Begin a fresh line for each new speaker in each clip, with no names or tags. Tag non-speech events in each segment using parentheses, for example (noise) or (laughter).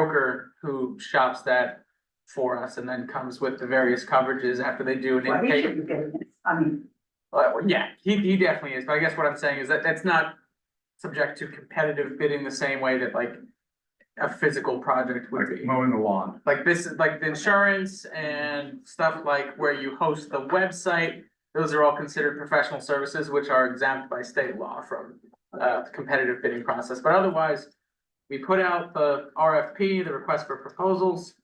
broker who shops that for us and then comes with the various coverages after they do an
Well, he
intake.
should be getting this, I mean,
Well, yeah, he, he definitely is, but I guess what I'm saying is that that's not subject to competitive bidding the same way that like a physical project would
like
be.
mowing the lawn.
Like this, is like the insurance and stuff like where you host the website, those are all considered professional services, which are exempt by state law from uh competitive bidding process, but otherwise, we put out the RFP, the request for proposals.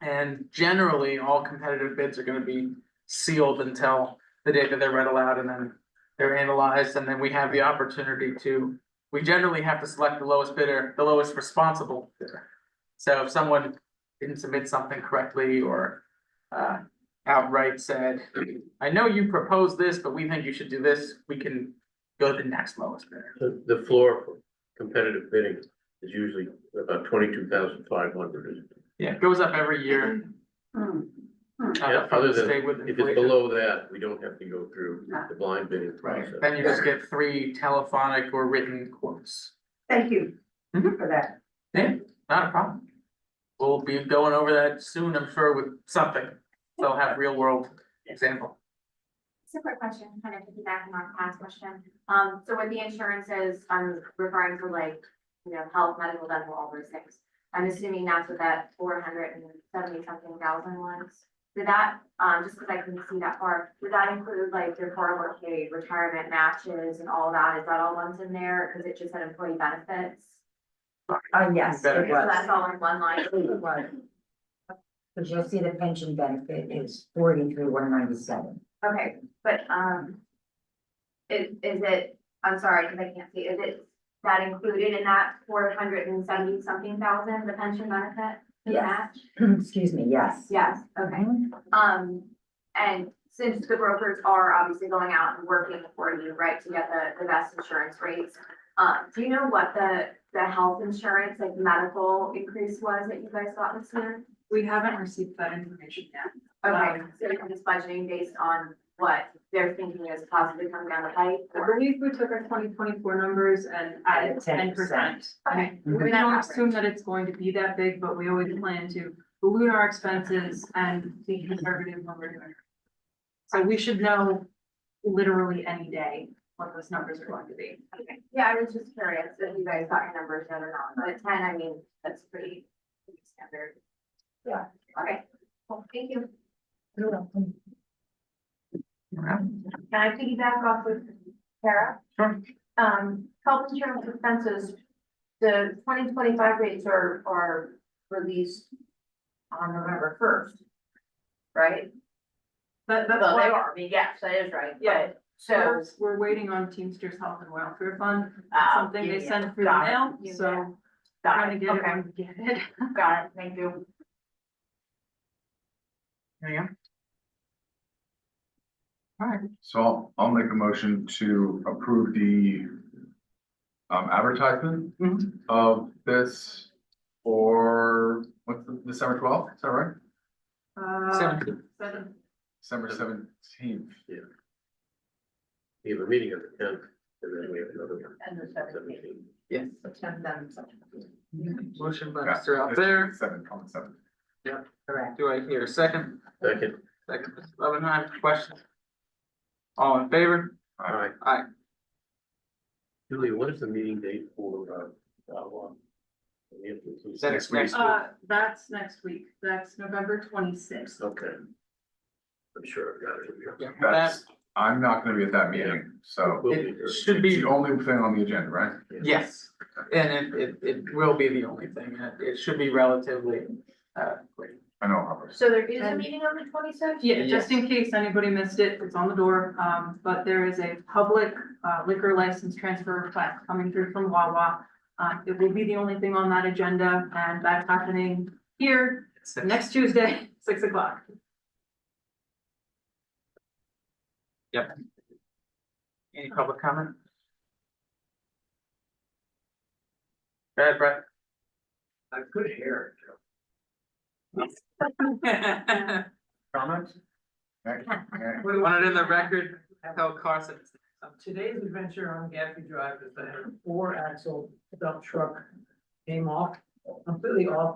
And generally, all competitive bids are gonna be sealed until the day that they're read aloud and then they're analyzed, and then we have the opportunity to, we generally have to select the lowest bidder, the lowest responsible bidder. So if someone didn't submit something correctly or uh outright said, I know you proposed this, but we think you should do this, we can go to the next lowest bidder.
The, the floor for competitive bidding is usually about twenty-two thousand five hundred.
Yeah, it goes up every year.
hmm, hmm,
uh,
Yeah, other than
stay with
If it's
inflation.
below that, we don't have to go through the blind bidding
Right,
process.
then you just get three telephonic or written quotes.
thank you
Mhm.
for that.
Not a problem. We'll be going over that soon, I'm sure, with something. They'll have real world example.
It's a quick question, kind of piggybacking on Pat's question. Um, so with the insurances, I'm referring to like, you know, health, medical, dental, all those things. I'm assuming that's what that four hundred and seventy something thousand was. Did that, um, just because I couldn't see that far, did that include like your four oh one K, retirement matches and all that? Is that all ones in there? Because it just said employee benefits.
Uh, yes,
Better.
it
So that's
was.
all in one line.
It was. But you'll see the pension benefit is forty-three, one ninety-seven. (clears throat)
Okay, but, um. Is, is it, I'm sorry, cause I can't see, is it that included in that four hundred and seventy something thousand, the pension benefit? the
Yes.
match?
Excuse me, yes.
Yes, okay, um, and since the brokers are obviously going out and working for you, right, to get the, the best insurance rates. Uh, do you know what the, the health insurance, like medical increase was that you guys got this year?
We haven't received that information yet.
Okay,
Um,
so you're just budgeting based on what they're thinking is possibly coming down the pipe
I
or?
believe we took our twenty twenty-four numbers and added ten
Added
percent.
10%.
Okay.
We don't assume that it's going to be that big, but we always plan to balloon our expenses and be conservative when we're doing it. So we should know literally any day what those numbers are going to be.
Okay, yeah, I was just curious if you guys got your numbers yet or not, but ten, I mean, that's pretty pretty standard.
Yeah.
Okay, well, thank you.
You're welcome.
Can I piggyback off with Tara?
Sure.
Um, health insurance expenses, the twenty twenty-five rates are, are released on November first, right?
But that's
Well, they
why,
are, I mean, yes, that is right,
Yeah.
but, so,
we're- we're waiting on Teamsters Health and Welfare Fund, It's
uh,
something
yeah,
they
yeah.
send through the
Got it.
mail,
Yeah.
so
got
trying
it,
to get it
okay,
when we get it.
got it, thank you.
Hang on.
So I'll, I'll make a motion to approve the um, advertisement
Mhm.
of this for, what's the, December twelfth, is that right?
Uh,
Seventeen.
seven-
December seventeenth.
We have a meeting on the tenth, and then we have another one.
And the
Seventeenth.
Yes. Motion by Mr. Out there,
Seven, on the seventh.
Correct.
do I hear a second?
Second,
Second, Mr. Loveenheim, question? All in favor?
all right.
Aye.
Julie, what is the meeting date for, uh, uh, one? We have to-
Next week.
Uh, that's next week, that's November twenty-sixth.
Okay. I'm sure I've got it here.
Yeah, that
That's, I'm not gonna be at that meeting, so
We'll be
it
here.
should
it's
be,
the only thing on the agenda, right?
yes, and it it it will be the only thing, and it it should be relatively uh quick.
I know, Robert.
So there is a
And-
meeting on the twenty-sixth?
Yeah, just in case anybody missed it, it's on the door, um, but there is a public uh, liquor license transfer request coming through from Wawa. Uh, it will be the only thing on that agenda, and that's happening here next Tuesday, (laughs) six o'clock.
Any public comment? Go ahead, Brett. (laughs) Comments?
Okay, okay.
Want it in the record, tell Carson.
Um, today's adventure on Gaffey Drive is that a four axle dump truck came off
completely off